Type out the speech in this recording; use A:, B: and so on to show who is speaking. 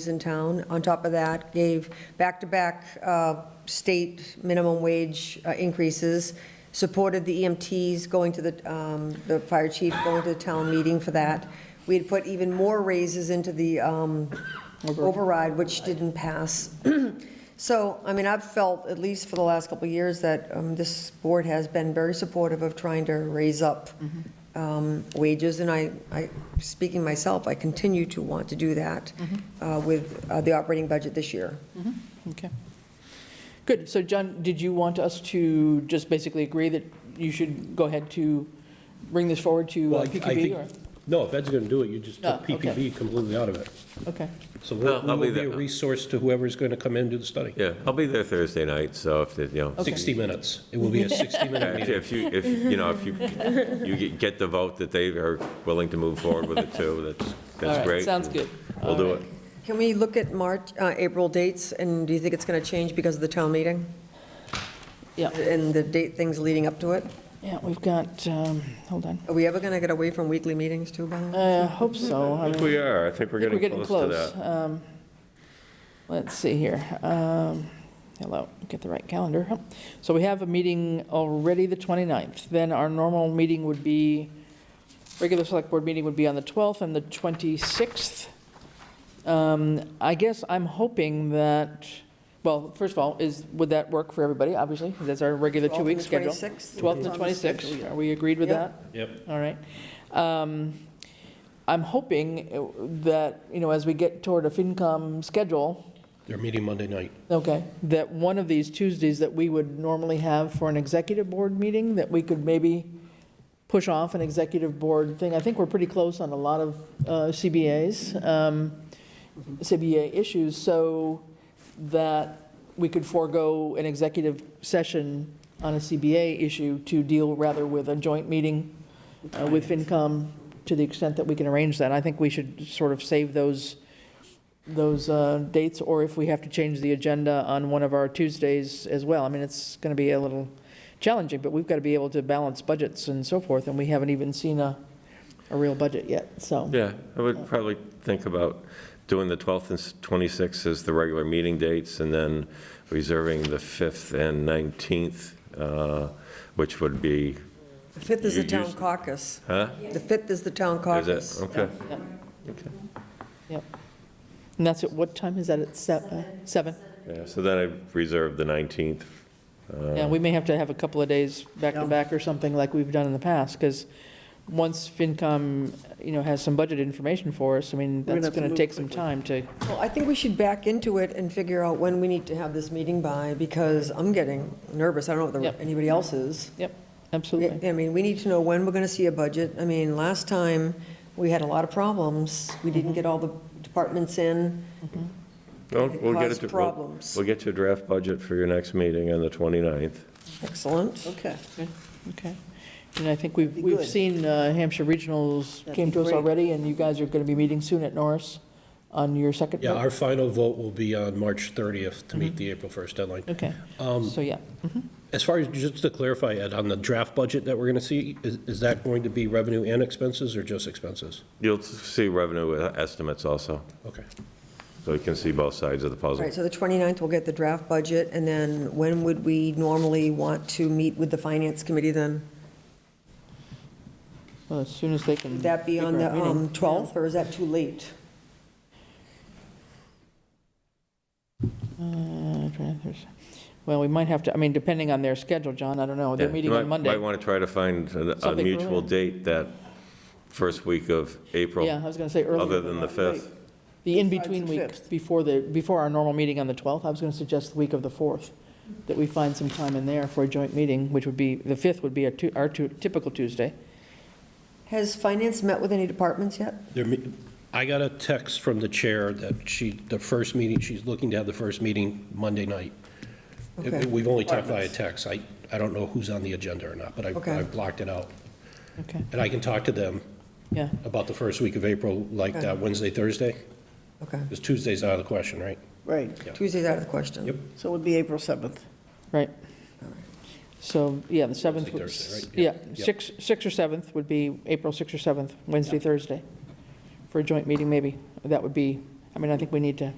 A: communities in town. On top of that, gave back-to-back uh, state minimum wage uh, increases, supported the EMTs going to the, um, the fire chief going to the town meeting for that. We had put even more raises into the um, override, which didn't pass. So, I mean, I've felt, at least for the last couple of years, that um, this board has been very supportive of trying to raise up
B: Mm-hmm.
A: um, wages, and I, I, speaking myself, I continue to want to do that
B: Mm-hmm.
A: uh, with uh, the operating budget this year.
B: Okay. Good. So John, did you want us to just basically agree that you should go ahead to bring this forward to
C: Well,
B: uh,
C: I I
B: PQB
C: think,
B: or?
C: no, if that's going to do it, you just took
B: No, okay.
C: PPP completely out of it.
B: Okay,
C: So
D: No,
C: we'll- we
D: I'll
C: will
D: leave
C: be a
D: that.
C: resource to whoever's going to come in and do the study.
D: Yeah, I'll be there Thursday night, so if, the- you know,
B: Okay.
C: 60 minutes. It will be a 60-minute
D: actually,
C: meeting.
D: if you, if, you know, if you, you get- get the vote that they are willing to move forward with it too, that's,
B: All right,
D: that's great.
B: sounds good.
D: We'll do
B: All
D: it.
B: right.
A: Can we look at March, uh, April dates, and do you think it's going to change because of the town meeting?
B: yeah.
A: And the date, things leading up to it?
B: Yeah, we've got, um, hold on.
A: Are we ever going to get away from weekly meetings too, by the way?
B: I Uh, hope so. I
D: I
B: mean,
D: think we are, I think we're
B: I think we're
D: getting close to that.
B: Um, Let's see here. Um, Hello, get the right calendar. So we have a meeting already the 29th. Then our normal meeting would be, regular select board meeting would be on the 12th and the 26th. Um, I guess I'm hoping that, well, first of all, is, would that work for everybody, obviously? That's our regular
A: Twelfth and
B: two-week
A: the
B: schedule.
A: 26th?
B: 12th and
A: It's on the schedule,
B: 26th.
A: yeah.
B: Are we agreed with
A: Yep.
B: that?
C: Yep.
B: All right. Um, I'm hoping uh, that, you know, as we get toward a FinCom schedule,
C: They're meeting Monday night.
B: okay, that one of these Tuesdays that we would normally have for an executive board meeting, that we could maybe push off an executive board thing. I think we're pretty close on a lot of uh, CBAs, um, CBA issues, so that we could forego an executive session on a CBA issue to deal rather with a joint meeting uh, with FinCom to the extent that we can arrange that. I think we should sort of save those, those uh, dates, or if we have to change the agenda on one of our Tuesdays as well. I mean, it's going to be a little challenging, but we've got to be able to balance budgets and so forth, and we haven't even seen a, a real budget yet, so.
D: Yeah, I would probably think about doing the 12th and s- 26th as the regular meeting dates, and then reserving the 5th and 19th, uh, which would be,
A: The 5th is the
D: You- you
A: town
D: s-
A: caucus.
D: huh?
A: The 5th is the town
D: Is
A: caucus.
D: it? Okay.
B: Yep.
D: Okay.
B: Yep. And that's at, what time is that? At se- uh, seven?
D: Yeah, so then I reserved the 19th.
B: Yeah, we may have to have a couple of days back to back or something like we've done in the past, because once FinCom, you know, has some budget information for us, I mean, that's going to take some time to,
A: Well, I think we should back into it and figure out when we need to have this meeting by, because I'm getting nervous. I don't know if
B: Yep.
A: anybody else is.
B: yep,
A: We-
B: absolutely.
A: I mean, we need to know when we're going to see a budget. I mean, last time, we had a lot of problems. We didn't
B: Mm-hmm.
A: get all the departments in.
D: We'll
A: It
D: we'll get
A: caused
D: to- we'll-
A: problems.
D: We'll get you a draft budget for your next meeting on the 29th.
A: Excellent.
E: Okay,
B: Okay. And I think we've,
E: Be
B: we've
E: good.
B: seen uh, Hampshire Regionals
E: That'd
B: came
E: be
B: to us
E: great.
B: already, and you guys are going to be meeting soon at Norris on your second
C: Yeah,
B: vote?
C: our final vote will be on March 30th to meet the April 1st deadline.
B: Okay, so yeah.
C: As far as, just to clarify, Ed, on the draft budget that we're going to see, is is that going to be revenue and expenses or just expenses?
D: You'll see revenue e, estimates also,
C: Okay.
D: so you can see both sides of the
A: All
D: puzzle.
A: right, so the 29th, we'll get the draft budget, and then when would we normally want to meet with the finance committee then?
B: Well, as soon as they can.
A: Would that be on
B: figure
A: the
B: out a meeting.
A: um, 12th, or is that too late?
B: Uh, trying to think. Well, we might have to, I mean, depending on their schedule, John, I don't know.
D: Yeah,
B: They're
D: you
B: meeting
D: might-
B: on Monday.
D: Might want to try to find a- a
B: Something
D: mutual
B: earlier.
D: date that first week of April,
B: Yeah, I was going to say earlier.
D: other than the 5th.
B: The in-between
E: Besides the
B: week,
E: fifth.
B: before the, before our normal meeting on the 12th, I was going to suggest the week of the 4th, that we find some time in there for a joint meeting, which would be, the 5th would be our tu- our tu- typical Tuesday.
A: Has finance met with any departments yet?
C: There me- I got a text from the chair that she, the first meeting, she's looking to have the first meeting Monday night. It-
A: Okay.
C: We've only talked via text. I, I don't know who's on the agenda or not, but I-
A: Okay.
C: I've blocked it out.
B: Okay,
C: And I can talk to them
B: yeah,
C: about the first week of April, like that Wednesday, Thursday,
A: Okay,
C: because Tuesday's out of the question, right?
E: right.
A: Tuesday's out of the question.
C: Yep.
E: So it would be April 7th.
B: right. So, yeah, the 7th, would-
C: Thursday, right? Yeah,
B: yeah,
C: yeah.
B: 6, 6 or 7th would be, April 6th or 7th, Wednesday, Thursday, for a joint meeting maybe. That would be, I mean, I think we need to